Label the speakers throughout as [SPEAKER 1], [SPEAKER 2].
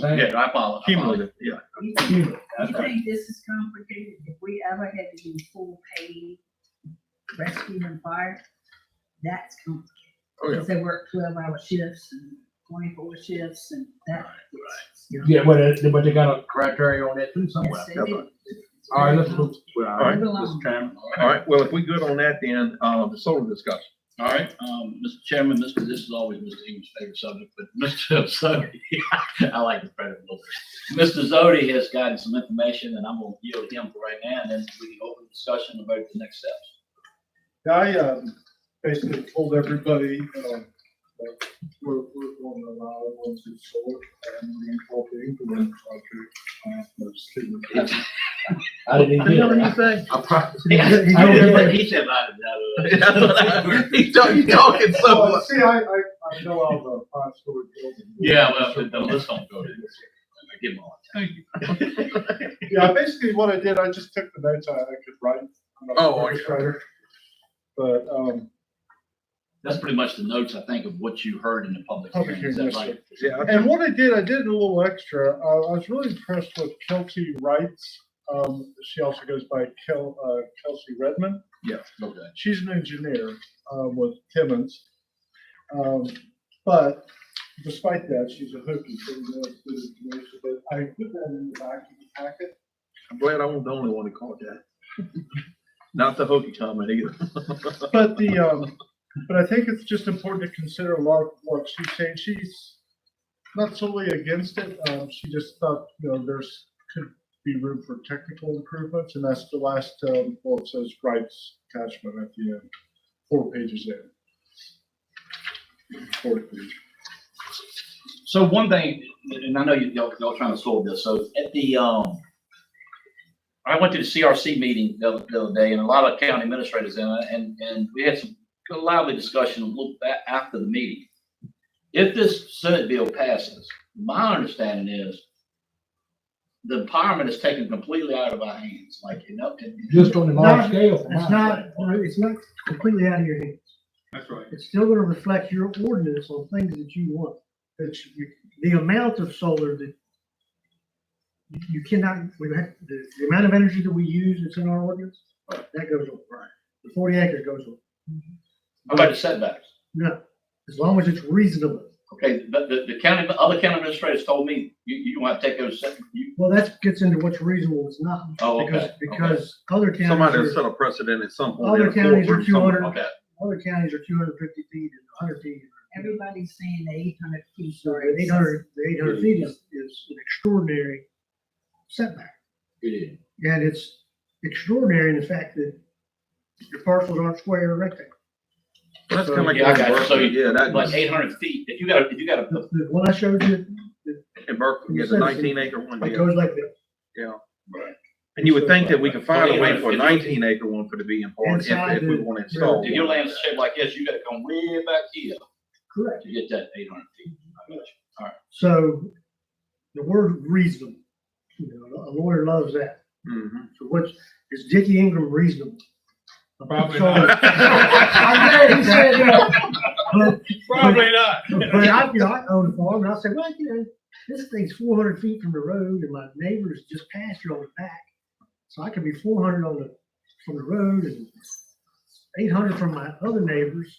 [SPEAKER 1] Yeah, I apologize.
[SPEAKER 2] Cumulative.
[SPEAKER 1] Yeah.
[SPEAKER 3] You think, you think this is complicated? If we ever had to do full paid rescue and fire, that's complicated.
[SPEAKER 2] Oh, yeah.
[SPEAKER 3] Cause they work twelve hour shifts and twenty-four shifts and that.
[SPEAKER 4] Yeah, but, it- but they got a criteria on that too somewhere.
[SPEAKER 3] Yes, they do.
[SPEAKER 4] All right, let's move. All right,
[SPEAKER 3] Move along.
[SPEAKER 4] Mr. Chairman.
[SPEAKER 1] All right, well, if we good on that, then, uh, the solar discussion.
[SPEAKER 2] All right, um, Mr. Chairman, this, this is always Mr. Ingham's favorite subject, but Mr. Zodi, I like the credit a little bit. Mr. Zodi has gotten some information and I'm gonna yield him for right now and then we can open discussion about the next steps.
[SPEAKER 5] Yeah, I, um, basically told everybody, um, that we're, we're going to allow one to sort and reincorporate the wind project. uh, as to the-
[SPEAKER 4] I didn't even hear that.
[SPEAKER 1] say?
[SPEAKER 4] I promise.
[SPEAKER 1] I
[SPEAKER 4] don't remember.
[SPEAKER 2] He said, "I don't
[SPEAKER 1] That's what I- He talk- he talking so
[SPEAKER 5] Well,
[SPEAKER 1] much.
[SPEAKER 5] See, I, I, I know all the five story building.
[SPEAKER 2] Yeah, well, but the list don't go to this. I give him all the time.
[SPEAKER 5] Yeah, basically what I did, I just took the notes I I could write. I'm not a
[SPEAKER 1] Oh, okay.
[SPEAKER 5] writer. But, um,
[SPEAKER 2] That's pretty much the notes, I think, of what you heard in the public
[SPEAKER 5] Public
[SPEAKER 2] hearing. Is
[SPEAKER 5] hearing,
[SPEAKER 2] that right?
[SPEAKER 1] Yeah,
[SPEAKER 5] And what I did, I did a little extra. Uh, I was really impressed with Kelsey Wrights. Um, she also goes by Kel, uh, Kelsey Redmond.
[SPEAKER 1] yeah.
[SPEAKER 2] Okay.
[SPEAKER 5] She's an engineer um, with Timmons. Um, but despite that, she's a hooky. so we know it's good information. But I put that in the back of the packet.
[SPEAKER 1] I'm glad I wasn't the only one that caught that. Not the hokey comment either.
[SPEAKER 5] But the, um, but I think it's just important to consider a lot of what she's saying. She's not solely against it. Um, she just thought, you know, there's could be room for technical improvements, and that's the last, um, well, it says rights attachment at the end, four pages in. Fourth page.
[SPEAKER 2] So one thing, and I know you- y'all, y'all trying to solve this, so at the, um, I went to the CRC meeting the other, the other day and a lot of county administrators in it, and, and we had some good lively discussion a little bit after the meeting. If this Senate bill passes, my understanding is the empowerment is taken completely out of our hands, like, you know. and-
[SPEAKER 4] Just on the large
[SPEAKER 6] Not-
[SPEAKER 4] scale. from
[SPEAKER 6] It's
[SPEAKER 4] my
[SPEAKER 6] not,
[SPEAKER 4] side.
[SPEAKER 6] no, it's not completely out of your hands.
[SPEAKER 2] That's right.
[SPEAKER 6] It's still gonna reflect your ordinance on things that you want. It's, you- the amount of solar that you- you cannot, we have, the, the amount of energy that we use that's in our ordinance, that goes on. Right. The forty acre goes on.
[SPEAKER 2] How about the setbacks?
[SPEAKER 6] No, as long as it's reasonable.
[SPEAKER 2] Okay, but the, the county, other county administrators told me, you, you want to take those, set- you,
[SPEAKER 6] Well, that gets into what's reasonable, it's not.
[SPEAKER 2] Oh, okay,
[SPEAKER 6] because-
[SPEAKER 2] okay.
[SPEAKER 6] Because other
[SPEAKER 1] Somebody
[SPEAKER 6] counties,
[SPEAKER 1] set
[SPEAKER 6] are-
[SPEAKER 1] a precedent at some point.
[SPEAKER 6] other
[SPEAKER 1] in a
[SPEAKER 6] counties are
[SPEAKER 1] courtroom
[SPEAKER 6] two
[SPEAKER 1] somewhere.
[SPEAKER 6] hundred,
[SPEAKER 2] okay.
[SPEAKER 6] other counties are two hundred fifty feet and hundred feet.
[SPEAKER 3] Everybody's saying the eight hundred feet.
[SPEAKER 6] So the eight hundred, the eight hundred feet is, is an extraordinary setback.
[SPEAKER 2] It is.
[SPEAKER 6] And it's extraordinary in the fact that your parcels aren't square or rectangle.
[SPEAKER 1] That's kind of like.
[SPEAKER 2] Yeah, I got you. So
[SPEAKER 1] Berkeley. Yeah, that
[SPEAKER 2] Like
[SPEAKER 1] was,
[SPEAKER 2] eight hundred feet, if you got, if you got a
[SPEAKER 6] The, the one I showed you,
[SPEAKER 1] in Berkeley, it's a nineteen acre one,
[SPEAKER 6] it
[SPEAKER 1] yeah.
[SPEAKER 6] goes like this.
[SPEAKER 1] And you would think that we could find a way for
[SPEAKER 2] Well,
[SPEAKER 1] a nineteen acre one for the being part if,
[SPEAKER 6] Inside
[SPEAKER 1] if we
[SPEAKER 6] the-
[SPEAKER 1] want to install.
[SPEAKER 2] If
[SPEAKER 1] one.
[SPEAKER 2] your land's shaped like this, you gotta come way back here
[SPEAKER 6] Correct.
[SPEAKER 2] to get that eight hundred feet. I got you.
[SPEAKER 6] So the word reasonable, you know, a lawyer loves that.
[SPEAKER 1] Mhm.
[SPEAKER 6] So what's, is Dickie Ingram reasonable?
[SPEAKER 4] Probably
[SPEAKER 6] So-
[SPEAKER 4] not.
[SPEAKER 6] I know, he said, you know, but Probably
[SPEAKER 2] not.
[SPEAKER 6] But I, you know, I own a farm and I say, well, you know, this thing's four hundred feet from the road and my neighbor's just pasture on the back. So I could be four hundred on the, from the road and eight hundred from my other neighbors.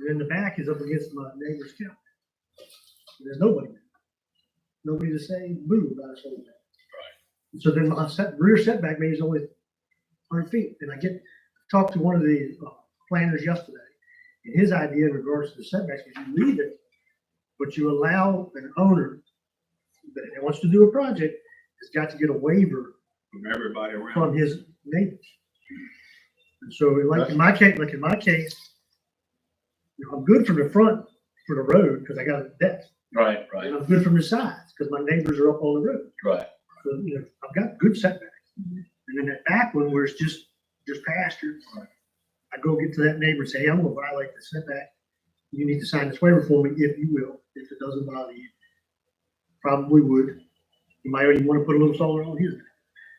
[SPEAKER 6] And then the back is up against my neighbor's cow. And There's nobody. there. Nobody to say move about a setback. Right. So then my set, rear setback maybe is only hundred feet. And I get, talked to one of the uh, planners yesterday. And his idea in regards to the setbacks was you leave it but you allow an owner that wants to do a project, has got to get a waiver
[SPEAKER 1] From everybody around.
[SPEAKER 6] from his neighbors. And so like in my case, like in my case, you know, I'm good from the front for the road because I got a deck.
[SPEAKER 2] Right, right,
[SPEAKER 6] And I'm good from the sides because my neighbors are up on the road.
[SPEAKER 2] right.
[SPEAKER 6] So, you know, I've got good setbacks. And then that back one where it's just, just pasture, I go get to that neighbor and say, hey, I'm gonna violate the setback. You need to sign this waiver for me if you will, if it doesn't bother you. Probably would. You might even wanna put a little solar on here.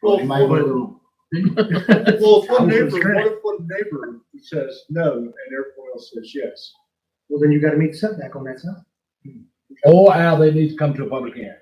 [SPEAKER 5] Well,
[SPEAKER 6] might want to-
[SPEAKER 5] Well, if one
[SPEAKER 6] I'm so
[SPEAKER 5] neighbor,
[SPEAKER 6] scared.
[SPEAKER 5] what if one neighbor says no and everyone else says yes?
[SPEAKER 6] Well, then you gotta meet the setback on that side.
[SPEAKER 4] Or how they need to come to a public hearing.